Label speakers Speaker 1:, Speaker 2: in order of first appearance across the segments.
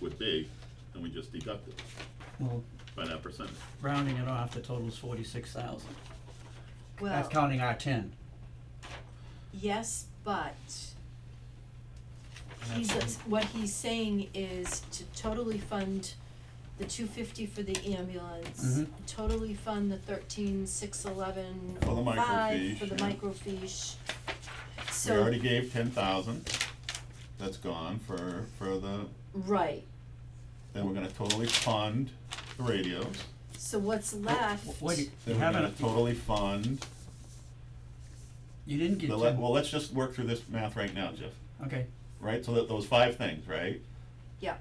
Speaker 1: would be, and we just deduct it
Speaker 2: Well,
Speaker 1: by that percentage.
Speaker 2: rounding it off, the total's forty-six thousand. That's
Speaker 3: Well,
Speaker 2: counting our ten.
Speaker 3: yes, but he's, what he's saying is to totally fund the two fifty for the ambulance,
Speaker 2: Mhm.
Speaker 3: totally fund the thirteen six eleven
Speaker 1: For the
Speaker 3: five
Speaker 1: microfiche,
Speaker 3: for the
Speaker 1: yeah.
Speaker 3: microfiche.
Speaker 1: We
Speaker 3: So,
Speaker 1: already gave ten thousand, that's gone for, for the,
Speaker 3: right,
Speaker 1: then we're gonna totally fund the radios.
Speaker 3: so what's left?
Speaker 2: W- Wait, you
Speaker 1: Then we're gonna
Speaker 2: haven't,
Speaker 1: totally fund,
Speaker 2: you didn't get
Speaker 1: the le-
Speaker 2: ten,
Speaker 1: well, let's just work through this math right now, Jeff,
Speaker 2: okay,
Speaker 1: right? So that those five things, right?
Speaker 3: Yeah,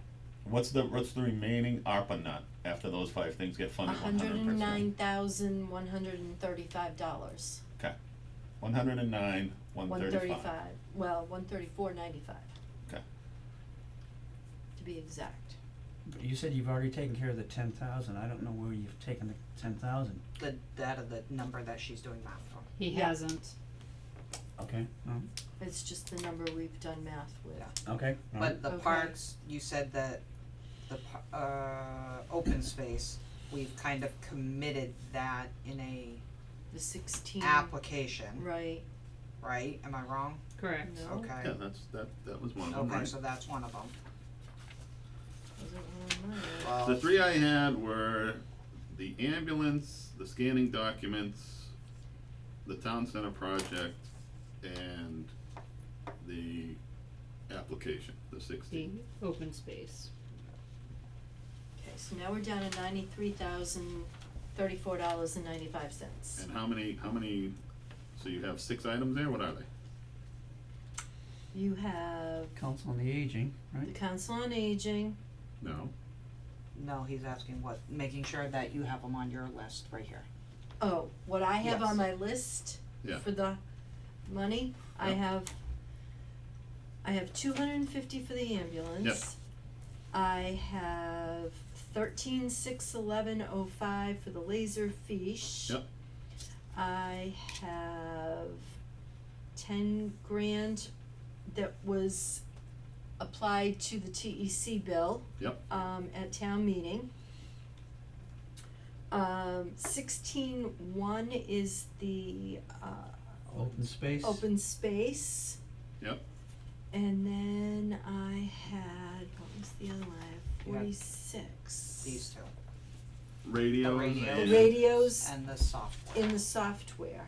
Speaker 1: What's the, what's the remaining ARPA nut after those five things get
Speaker 3: a
Speaker 1: funded one
Speaker 3: hundred
Speaker 1: hundred percent?
Speaker 3: and nine thousand one hundred and thirty-five dollars,
Speaker 1: Okay, one hundred and nine, one
Speaker 3: one
Speaker 1: thirty-five.
Speaker 3: thirty-five, well, one thirty-four ninety-five,
Speaker 1: Okay,
Speaker 3: to be exact.
Speaker 2: but you said you've already taken care of the ten thousand, I don't know where you've taken the ten thousand,
Speaker 4: the that of the number that she's doing math from.
Speaker 5: He
Speaker 3: Yeah.
Speaker 5: hasn't.
Speaker 2: okay, um,
Speaker 3: It's just the number we've done math with.
Speaker 4: Yeah.
Speaker 2: okay,
Speaker 1: Mm-hmm.
Speaker 2: alright.
Speaker 4: But the
Speaker 3: Okay.
Speaker 4: parks, you said that the par- uh open space, we've kind of committed that in a
Speaker 3: The sixteen,
Speaker 4: application,
Speaker 3: right,
Speaker 4: right? Am I wrong?
Speaker 5: Correct.
Speaker 3: no, wasn't
Speaker 4: Okay.
Speaker 1: yeah, that's, that, that was one of them, right?
Speaker 4: Okay, so that's one of them.
Speaker 3: one of mine.
Speaker 1: The three I had were the ambulance, the scanning documents, the town center project, and the application, the
Speaker 5: The
Speaker 1: sixteen.
Speaker 5: open space.
Speaker 3: Okay, so now we're down to ninety-three thousand, thirty-four dollars and ninety-five cents.
Speaker 1: And how many, how many, so you have six items there, what are they?
Speaker 3: You have
Speaker 2: Council on the Aging,
Speaker 3: the
Speaker 2: right,
Speaker 3: council on aging,
Speaker 1: No,
Speaker 4: No, he's asking what, making sure that you have them on your list right here.
Speaker 3: oh, what I have on
Speaker 4: Yes.
Speaker 3: my list
Speaker 1: Yeah.
Speaker 3: for the money, I
Speaker 1: Yeah.
Speaker 3: have, I have two hundred and fifty for the ambulance. I have thirteen six eleven oh five for the laser fiche.
Speaker 1: Yep.
Speaker 3: I have ten grand that was applied to the TEC bill.
Speaker 1: Yep.
Speaker 3: Um, at town meeting. Um, sixteen one is the, uh,
Speaker 2: open space,
Speaker 3: open space.
Speaker 1: Yep.
Speaker 3: And then I had, what was the other one? I
Speaker 4: You
Speaker 3: had
Speaker 4: had
Speaker 3: forty-six.
Speaker 4: These two,
Speaker 1: radios
Speaker 4: radios.
Speaker 1: and.
Speaker 3: Radios
Speaker 4: and the software.
Speaker 3: in the software,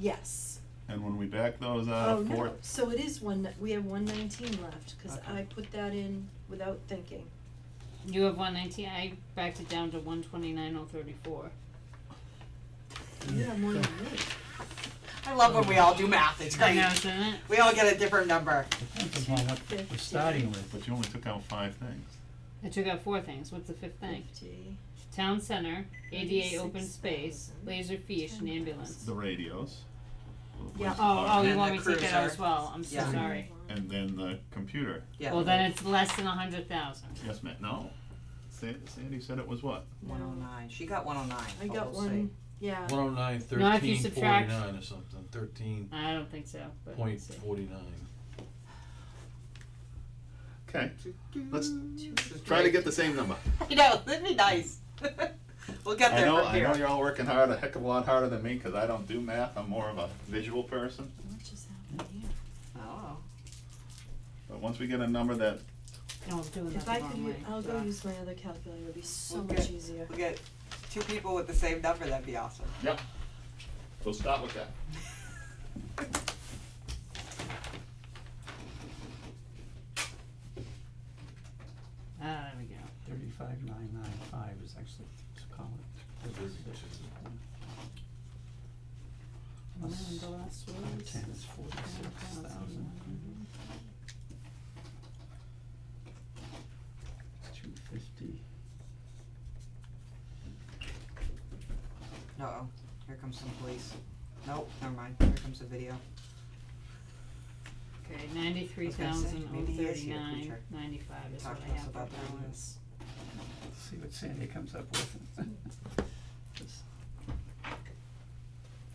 Speaker 3: yes.
Speaker 1: And when we back those
Speaker 3: Oh,
Speaker 1: out, Uh, four,
Speaker 3: no, so it is one, we have one nineteen left, cause
Speaker 2: Okay.
Speaker 3: I put that in without thinking.
Speaker 5: You have one nineteen, I backed it down to one twenty-nine oh thirty-four.
Speaker 3: You have more than me.
Speaker 4: I love when we all do math, it's
Speaker 5: I
Speaker 4: great.
Speaker 5: know, isn't it?
Speaker 4: We all get a different number.
Speaker 2: depends upon what we're
Speaker 3: 250.
Speaker 2: starting with,
Speaker 1: but you only took out five things.
Speaker 5: I took out four things, what's the fifth thing?
Speaker 3: Fifty.
Speaker 5: Town center, ADA open
Speaker 3: 36,000,
Speaker 5: space, laser fiche and ambulance.
Speaker 1: The radios.
Speaker 3: Yeah. uh-
Speaker 5: Oh, oh, you
Speaker 4: And
Speaker 5: want
Speaker 4: the
Speaker 5: me to take that out
Speaker 4: cruiser.
Speaker 5: as well, I'm so
Speaker 4: Yeah.
Speaker 5: sorry.
Speaker 1: And then the computer.
Speaker 4: Yeah.
Speaker 5: Well, then it's less than a hundred thousand.
Speaker 1: Yes, ma'am, no. Sa- Sandy said it was what?
Speaker 4: One oh nine, she got one oh nine,
Speaker 3: I
Speaker 4: but
Speaker 3: got
Speaker 4: we'll see.
Speaker 3: one, yeah,
Speaker 6: One oh nine
Speaker 5: Not if you
Speaker 6: thirteen
Speaker 5: subtract-
Speaker 6: forty nine or something, thirteen
Speaker 5: I don't think so, but
Speaker 6: point
Speaker 5: let's see.
Speaker 6: forty nine.
Speaker 1: Okay, let's
Speaker 4: This is
Speaker 1: try to
Speaker 4: great.
Speaker 1: get the same number.
Speaker 4: I know, that'd be nice. we'll get
Speaker 1: I
Speaker 4: there
Speaker 1: know,
Speaker 4: from
Speaker 1: I
Speaker 4: here.
Speaker 1: know you're all working hard, a heck of a lot harder than me, because I don't do math, I'm more of a visual person.
Speaker 3: what just happened here?
Speaker 4: Oh.
Speaker 1: But once we get a number that,
Speaker 5: No, I'm doing that
Speaker 3: If
Speaker 5: the
Speaker 3: I could,
Speaker 5: wrong way.
Speaker 3: u- I'll go
Speaker 4: Yeah.
Speaker 3: use my other calculator, it'll be so
Speaker 4: Okay.
Speaker 3: much easier.
Speaker 4: We get two people with the same number, that'd be awesome.
Speaker 1: yep, so start with that.
Speaker 5: Ah, there we go.
Speaker 2: thirty-five nine nine five is actually, it's called.
Speaker 5: And then the last
Speaker 2: Five
Speaker 5: was.
Speaker 2: ten is forty-six thousand. Two fifty.
Speaker 4: Uh-oh, here comes some police. Nope, never mind, here comes the video.
Speaker 5: Okay, ninety-three
Speaker 4: I was gonna say,
Speaker 5: thousand oh
Speaker 4: maybe he is your
Speaker 5: thirty-nine,
Speaker 4: teacher.
Speaker 5: ninety-five is what
Speaker 4: Talk to
Speaker 5: I
Speaker 4: us
Speaker 5: have for
Speaker 4: about the
Speaker 5: balance.
Speaker 2: Let's see what Sandy comes up with. Just-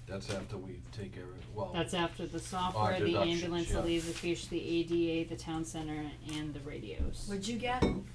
Speaker 6: That's after we take every, well,
Speaker 5: That's after the software, the
Speaker 6: deductions,
Speaker 5: ambulance, the
Speaker 6: yeah.
Speaker 5: laser fish, the ADA, the town center, and the radios.
Speaker 3: What'd you get?